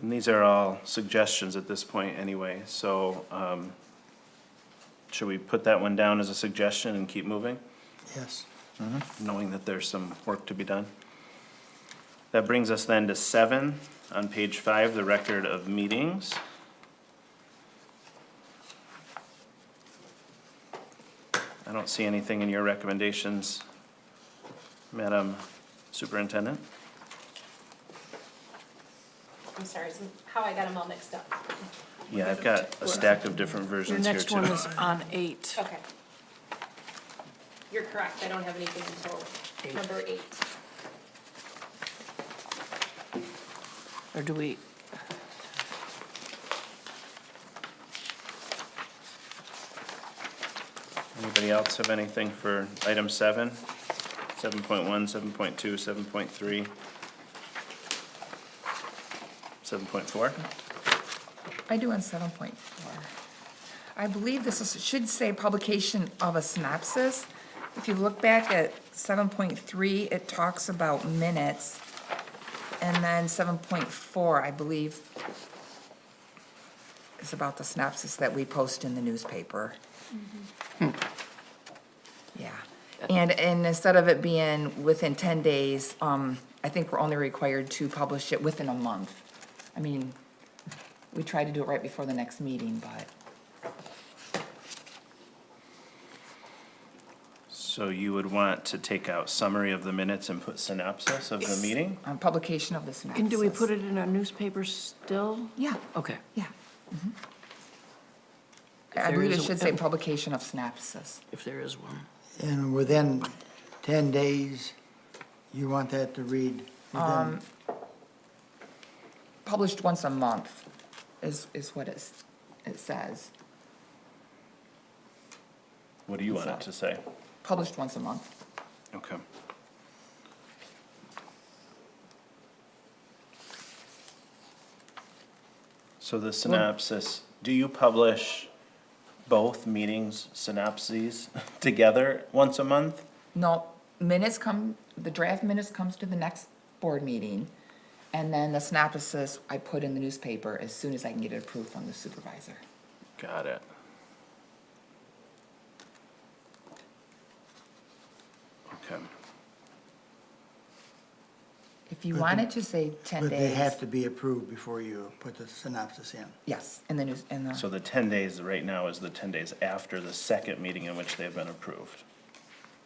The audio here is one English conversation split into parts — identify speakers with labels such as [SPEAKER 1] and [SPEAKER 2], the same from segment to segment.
[SPEAKER 1] And these are all suggestions at this point anyway, so, um, should we put that one down as a suggestion and keep moving?
[SPEAKER 2] Yes.
[SPEAKER 1] knowing that there's some work to be done. That brings us then to seven, on page five, the record of meetings. I don't see anything in your recommendations, Madam Superintendent.
[SPEAKER 3] I'm sorry, so how I got them all mixed up.
[SPEAKER 1] Yeah, I've got a stack of different
[SPEAKER 4] Your
[SPEAKER 1] versions here
[SPEAKER 4] next one
[SPEAKER 1] too.
[SPEAKER 4] is on eight.
[SPEAKER 3] Okay. You're correct, I don't have anything until number eight.
[SPEAKER 4] Or do we?
[SPEAKER 1] Anybody else have anything for item seven? Seven point one, seven point two, seven point three? Seven point four?
[SPEAKER 5] I do on seven point four. I believe this is, should say publication of a synopsis. If you look back at seven point three, it talks about minutes. And then seven point four, I believe, is about the synopsis that we post in the newspaper. Yeah, and, and instead of it being within ten days, um, I think we're only required to publish it within a month. I mean, we try to do it right before the next meeting, but
[SPEAKER 1] So you would want to take out summary of the minutes and put synopsis of the meeting?
[SPEAKER 5] on publication of the synopsis.
[SPEAKER 4] And do we put it in our newspaper still?
[SPEAKER 5] Yeah,
[SPEAKER 4] Okay.
[SPEAKER 5] yeah. mhm. I
[SPEAKER 4] There
[SPEAKER 5] believe it
[SPEAKER 4] is a-
[SPEAKER 5] should say publication of synopsis.
[SPEAKER 4] If there is one.
[SPEAKER 2] And within ten days, you want that to read
[SPEAKER 5] Um,
[SPEAKER 2] within,
[SPEAKER 5] Published once a month is, is what it's, it says.
[SPEAKER 1] What do you want it to say?
[SPEAKER 5] Published once a month.
[SPEAKER 1] Okay. So the synopsis, do you publish both meetings synopses together once a month?
[SPEAKER 5] No, minutes come, the draft minutes comes to the next board meeting. And then the synopsis I put in the newspaper as soon as I can get it approved from the supervisor.
[SPEAKER 1] Got it. Okay.
[SPEAKER 5] If you want it to say ten
[SPEAKER 2] but they
[SPEAKER 5] days,
[SPEAKER 2] have to be approved before you put the synopsis in.
[SPEAKER 5] yes, in the news, in the.
[SPEAKER 1] So the ten days right now is the ten days after the second meeting in which they have been approved.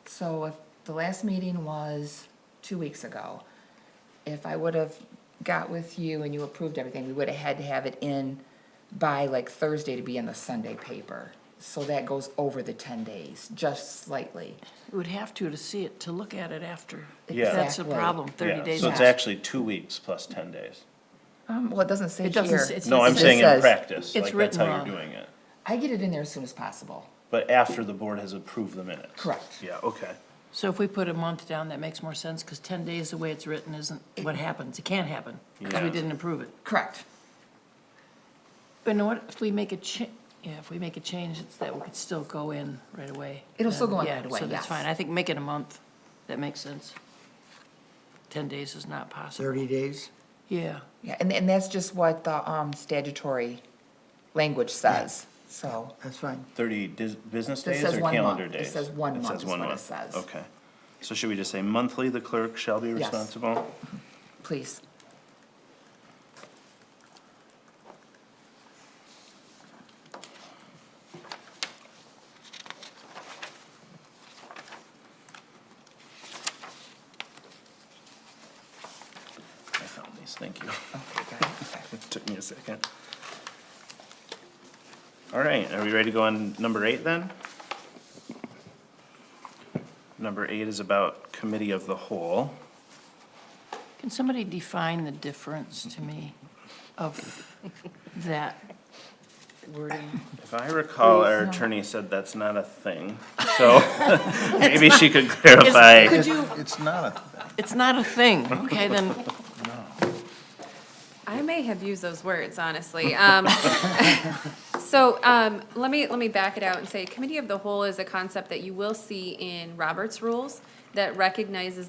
[SPEAKER 5] So if the last meeting was two weeks ago, if I would have got with you and you approved everything, we would have had to have it in by like Thursday to be in the Sunday paper. So that goes over the ten days, just slightly.
[SPEAKER 4] You would have to to see it, to look at it after.
[SPEAKER 1] Yeah.
[SPEAKER 4] That's the
[SPEAKER 5] Exactly.
[SPEAKER 4] problem, thirty
[SPEAKER 1] Yeah,
[SPEAKER 4] days.
[SPEAKER 1] So it's
[SPEAKER 4] out.
[SPEAKER 1] actually two weeks plus ten days.
[SPEAKER 5] Um, well, it doesn't say
[SPEAKER 4] It doesn't, s-
[SPEAKER 5] here.
[SPEAKER 4] it's.
[SPEAKER 1] No, I'm
[SPEAKER 4] it's-
[SPEAKER 1] saying in
[SPEAKER 5] says-
[SPEAKER 1] practice,
[SPEAKER 4] it's
[SPEAKER 1] like that's how
[SPEAKER 4] written
[SPEAKER 1] you're
[SPEAKER 4] wrong.
[SPEAKER 1] doing it.
[SPEAKER 5] I get it in there as soon as possible.
[SPEAKER 1] But after the board has approved the minutes.
[SPEAKER 5] Correct.
[SPEAKER 1] Yeah, okay.
[SPEAKER 4] So if we put a month down, that makes more sense, because ten days, the way it's written, isn't what happens. It can't happen, because we
[SPEAKER 1] Yeah.
[SPEAKER 4] didn't approve it.
[SPEAKER 5] Correct.
[SPEAKER 4] But you know what, if we make a cha, yeah, if we make a change, it's that we could still go in right away.
[SPEAKER 5] It'll still
[SPEAKER 4] then,
[SPEAKER 5] go in
[SPEAKER 4] yeah,
[SPEAKER 5] right away,
[SPEAKER 4] So that's
[SPEAKER 5] yes.
[SPEAKER 4] fine, I think make it a month, that makes sense. Ten days is not possible,
[SPEAKER 2] Thirty days?
[SPEAKER 4] yeah.
[SPEAKER 5] Yeah, and, and that's just what the, um, statutory language says, so.
[SPEAKER 2] That's fine.
[SPEAKER 1] Thirty dis- business
[SPEAKER 5] This
[SPEAKER 1] days
[SPEAKER 5] says
[SPEAKER 1] or
[SPEAKER 5] one
[SPEAKER 1] calendar
[SPEAKER 5] month. It
[SPEAKER 1] days?
[SPEAKER 5] says one month
[SPEAKER 1] says
[SPEAKER 5] is
[SPEAKER 1] one
[SPEAKER 5] what it
[SPEAKER 1] month.
[SPEAKER 5] says.
[SPEAKER 1] Okay. So should we just say monthly, the clerk shall be responsible?
[SPEAKER 5] Please.
[SPEAKER 1] I found these, thank you.
[SPEAKER 5] Okay, got it, okay.
[SPEAKER 1] Took me a second. All right, are we ready to go on number eight then? Number eight is about committee of the whole.
[SPEAKER 4] Can somebody define the difference to me of that wording?
[SPEAKER 1] If I recall, our attorney said that's not a thing, so maybe she could clarify.
[SPEAKER 4] Could you,
[SPEAKER 6] It's not a,
[SPEAKER 4] it's not a thing, okay, then,
[SPEAKER 7] I may have used those words, honestly. Um, So um, let me, let me back it out and say, committee of the whole is a concept that you will see in Robert's rules that recognizes